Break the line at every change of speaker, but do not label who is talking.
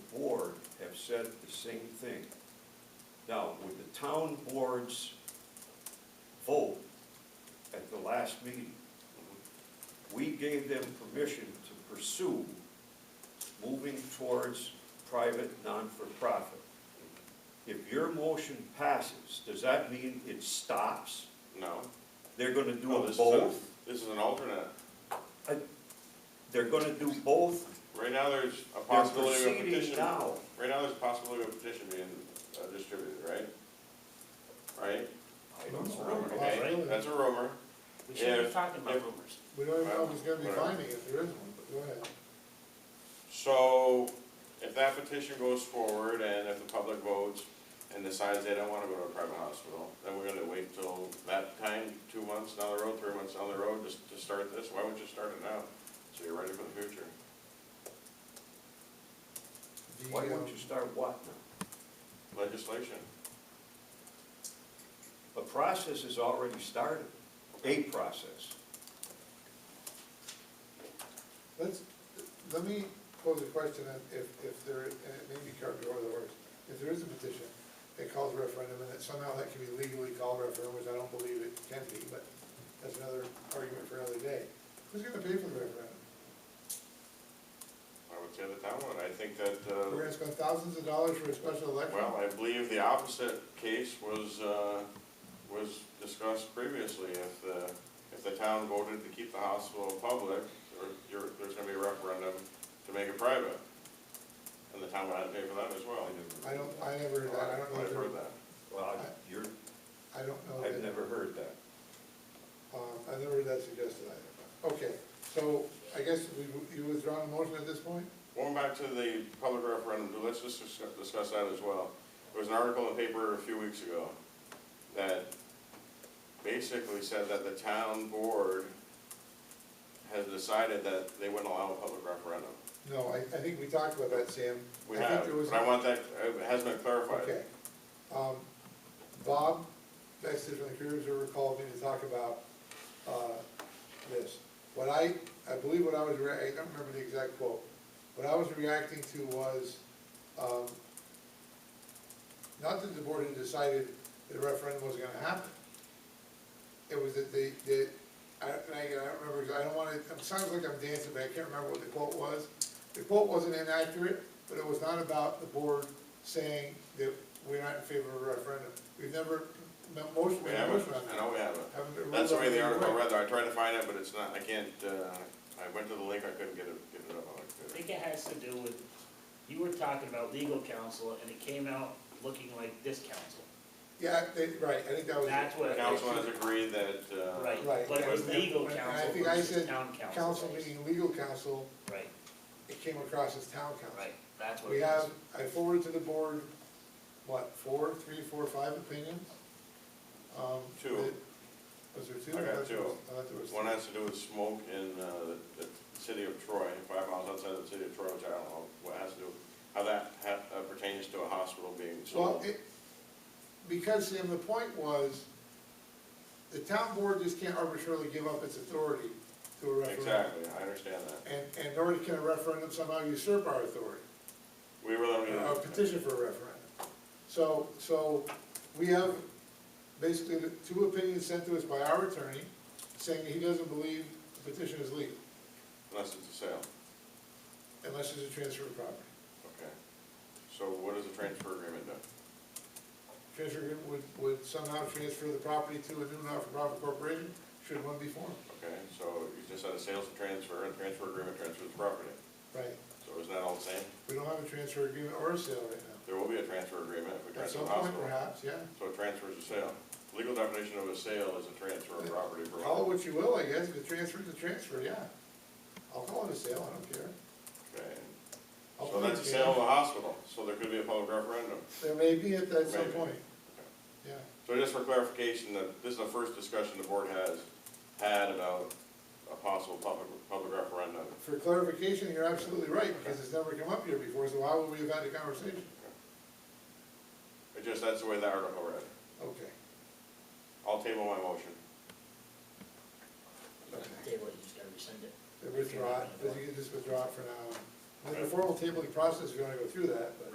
said the same thing. Now, with the town board's vote at the last meeting, we gave them permission to pursue moving towards private, non-for-profit. If your motion passes, does that mean it stops?
No.
They're gonna do
No, this
both?
is a- This is an alternate.
They're gonna do both?
Right now, there's a
They're
possibility of a
proceeding
petition.
now.
Right now, there's a possibility of a petition being uh, distributed, right? Right?
I don't
It's
know.
rumor.
Okay, that's a rumor.
We shouldn't
Yeah.
be talking about
Yeah.
rumors.
We don't even know if it's gonna be
Whatever.
binding if there is one, but go ahead.
So if that petition goes forward and if the public votes and decides they don't wanna go to a private hospital, then we're gonna wait till that time, two months down the road, three months down the road, just to start this? Why wouldn't you start it now? So you're ready for the future.
The,
Why
um,
don't you start what now?
Legislation.
The process is already started, a process.
Let's, let me pose a question, and if, if there, and it may be carved over the words. If there is a petition that calls referendum, and that somehow that can be legally called referendum, which I don't believe it can be, but that's another argument for another day. Who's gonna pay for the referendum?
I would say the town would. I think that, uh.
We're gonna spend thousands of dollars for a special election?
Well, I believe the opposite case was, uh, was discussed previously. If the, if the town voted to keep the hospital public, or you're, there's gonna be a referendum to make it private. And the town would have to pay for that as well.
I don't, I never, heard that. I don't know,
I've
if
heard
there-
that.
Well, you're,
I don't know.
I've
that-
never heard that.
Um, I never heard that suggested either. Okay, so I guess we, you withdraw the motion at this point?
Going back to the public referendum, let's just discuss- discuss that as well. There was an article in the paper a few weeks ago that basically said that the town board has decided that they wouldn't allow a public referendum.
No, I, I think we talked about that, Sam.
We
I think
have,
there was-
but I want that, it has been clarified.
Okay. Um, Bob, Baxter from the Career Observer called me to talk about, uh, this. What I, I believe what I was, rea- I don't remember the exact quote. What I was reacting to was, um, not that the board had decided that a referendum was gonna happen. It was that they, that, I, and I, I don't remember, I don't wanna, it sounds like I'm dancing, but I can't remember what the quote was. The quote wasn't inaccurate, but it was not about the board saying that we're not in favor of a referendum. We've never, no, motion,
We
we
have
have a
it,
motion on
I
that.
know we have it.
Haven't been
That's the
ruled
way the
out either
article
way.
read, though, I tried to find it, but it's not, I can't, uh, I went to the link, I couldn't get it, get it up on my
I
computer.
think it has to do with, you were talking about legal counsel, and it came out looking like this counsel.
Yeah, they, right, I think that was. it.
That's what,
The
right,
council has agreed that, uh.
Right,
but it was
and-
legal
and I
counsel
think I
versus
said
town counsel.
Council meaning legal counsel,
Right,
it came across as town
right,
council.
that's what
We
it was.
have, I forwarded to the board, what, four, three, four, five opinions? Um,
Two.
that- Was there two?
I got
thought there
two.
was- I thought there was
One
three.
has to do with smoke in, uh, the, the city of Troy, five miles outside of the city of Troy, which I don't know what has to do, how that ha, uh, pertains to a hospital being
Well,
sold.
it, because Sam, the point was, the town board just can't arbitrarily give up its authority to a referendum.
Exactly, I understand that.
And, and nor can a referendum somehow usurp our authority.
We really don't need.
a Uh, petition for a referendum. So, so we have basically the two opinions sent to us by our attorney saying that he doesn't believe the petition is legal
Unless it's a sale,
unless it's a transfer of property.
okay. So what does the transfer agreement do?
Transfer agreement would, would somehow transfer the property to a new not-for-profit corporation, should one be formed,
Okay, so you just had a sales and transfer, and transfer agreement transfers the property.
right?
So isn't that all the same?
We don't have a transfer agreement or a sale right now.
There will be a transfer agreement if we
At
transfer
some
the hospital.
point perhaps, yeah.
So a transfer is a sale. Legal definition of a sale is a transfer of property. for-
Call it what you will, I guess, if it transfers, a transfer, yeah. I'll call it a sale, I don't care.
Okay.
I'll
So
put it
that's a
in.
sale of the hospital, so there could be a public referendum.
There may be at, at some
Maybe.
point, yeah.
So just for clarification, that this is the first discussion the board has had about a possible public, public referendum.
For clarification, you're absolutely right, because it's never come up here before, so why would we have had the conversation?
It just, that's the way the article read.
Okay,
I'll table my motion.
Table it, you just gotta rescind it.
They withdraw it, but you can just withdraw it for now. And the formal tabling process, if you wanna go through that, but.